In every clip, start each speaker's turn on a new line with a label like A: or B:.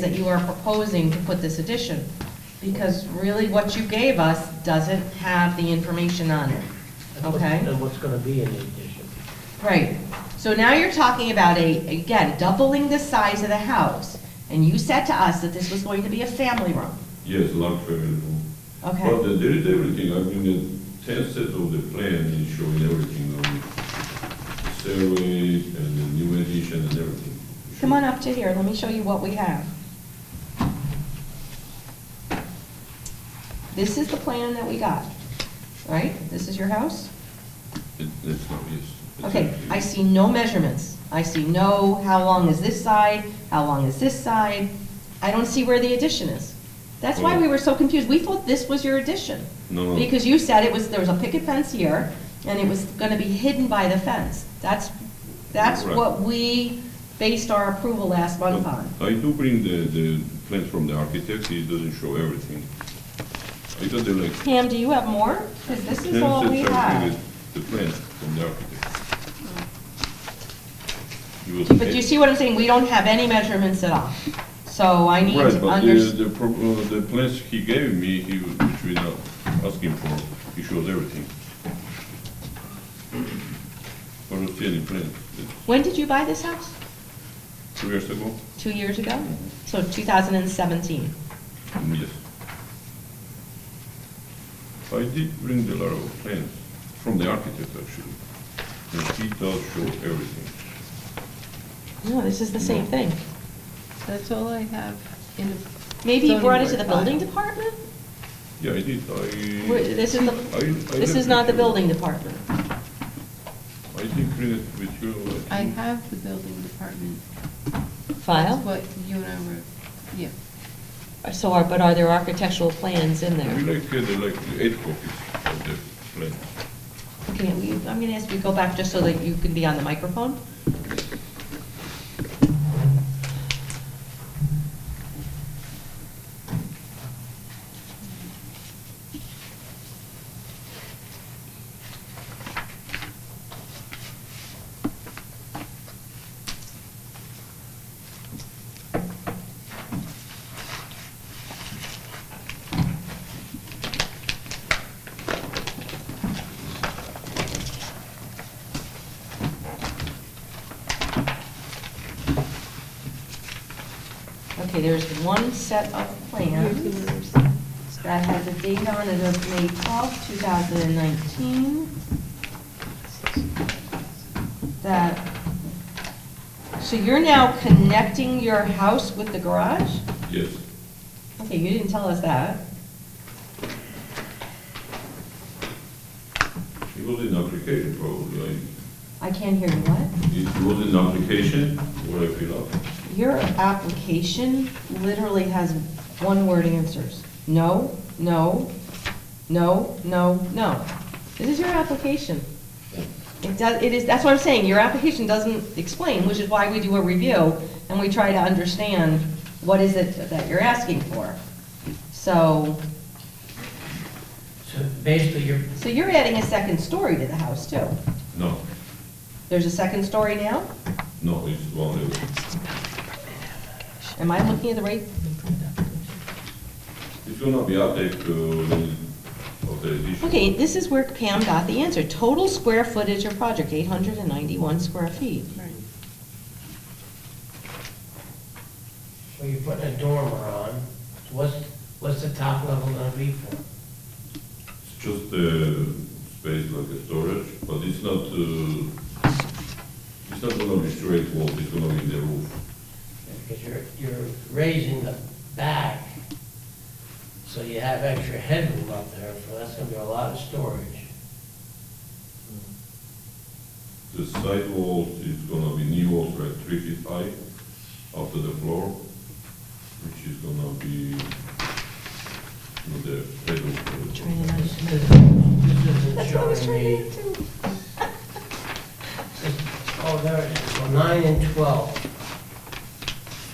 A: that you are proposing to put this addition, because really what you gave us doesn't have the information on it, okay?
B: And what's going to be in the addition?
A: Right, so now you're talking about a, again, doubling the size of the house, and you said to us that this was going to be a family room,
C: Yes, large family room. But
A: okay?
C: there is everything, I mean, the ten sets of the plan is showing everything on it. Stairways and the new addition and everything.
A: Come on up to here, let me show you what we have. This is the plan that we got, right? This is your house?
C: It- That's not, yes. It's
A: Okay,
C: everything.
A: I see no measurements. I see no, how long is this side, how long is this side? I don't see where the addition is. That's why we were so confused. We thought this was your addition.
C: No.
A: Because you said it was, there was a picket fence here, and it was gonna be hidden by the fence. That's, that's
C: Correct.
A: what we based our approval last month
C: But
A: on.
C: I do bring the, the plans from the architect, it doesn't show everything. I got the like.
A: Pam, do you have more? Because this is
C: 10
A: all
C: sets
A: we
C: everything
A: have. Mm.
C: is The plan from the architect. He was-
A: But you see what I'm saying? We don't have any measurements at all. So I need
C: Right,
A: to
C: but the,
A: understand.
C: the, pro- uh, the plans he gave me, he, was- which we now asking for, he shows everything. I don't see any plan, It's
A: When did you buy this house?
C: two years ago,
A: two years ago, so 2017.
C: Mm, yes. I did bring the lot of plans from the architect actually, and he does show everything.
A: No, this is the same thing.
D: That's all I have in the.
A: Maybe you
D: zoning
A: brought it to
D: board
A: the building
D: file.
A: department?
C: Yeah, I did,
A: Where-
C: I,
A: This is
C: I,
A: the,
C: I.
A: this is
C: left
A: not
C: it
A: the
C: to-
A: building department.
C: I did bring it with you.
D: I
C: think.
D: have the building department. That's
E: file?
D: What you and I were, yeah.
E: So are, but are there architectural plans in
C: We
E: there?
C: like, uh, the, like eight copies of the plan.
A: Okay, we- I'm going to ask you to go back just so that you can be on the microphone. Okay, there's one set of plans that has a date on it of May 12, 2019, that, so you're now connecting your house with the garage?
C: Yes.
A: Okay, you didn't tell us that.
C: It was an application probably, I,
A: I can't hear you, what?
C: it was an application where I fill out.
A: Your application literally has one-word answers. No, no, no, no, no. This is your application. It does, it is, that's what I'm saying, your application doesn't explain, which is why we do a review, and we try to understand what is it that you're asking for. So,
B: So basically, you're,
A: so you're adding a second story to the house, too.
C: No,
A: There's a second story now?
C: no, it's one level.
A: Am I looking at the right
C: It's gonna be update uh, of the edition.
A: Okay, this is where Pam got the answer. Total square footage of project, 891 square feet.
B: well, you're putting a dormer on, so what's, what's the top level going to be for?
C: It's just uh space like a storage, but it's not, uh, it's not gonna be straight wall, it's gonna be the roof.
B: Because you're, you're raising the back, so you have extra headroom up there, so that's going to be a lot of storage.
C: The side walls is gonna be new walls, right, three feet high up to the floor, which is gonna be, you know, the bedroom. for the-
B: This isn't- this isn't
A: That's what I was
B: showing
A: trying to
B: me,
A: get to.
B: oh, there it is, so nine and 12.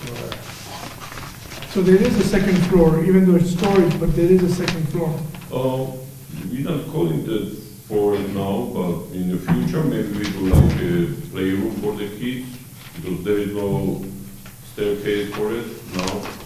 B: Sure.
F: So there is a second floor, even though it's storage, but there is a second floor.
C: Uh, we're not calling that for it now, but in the future, maybe we do like a playroom for the kids, because there is no staircase for it now.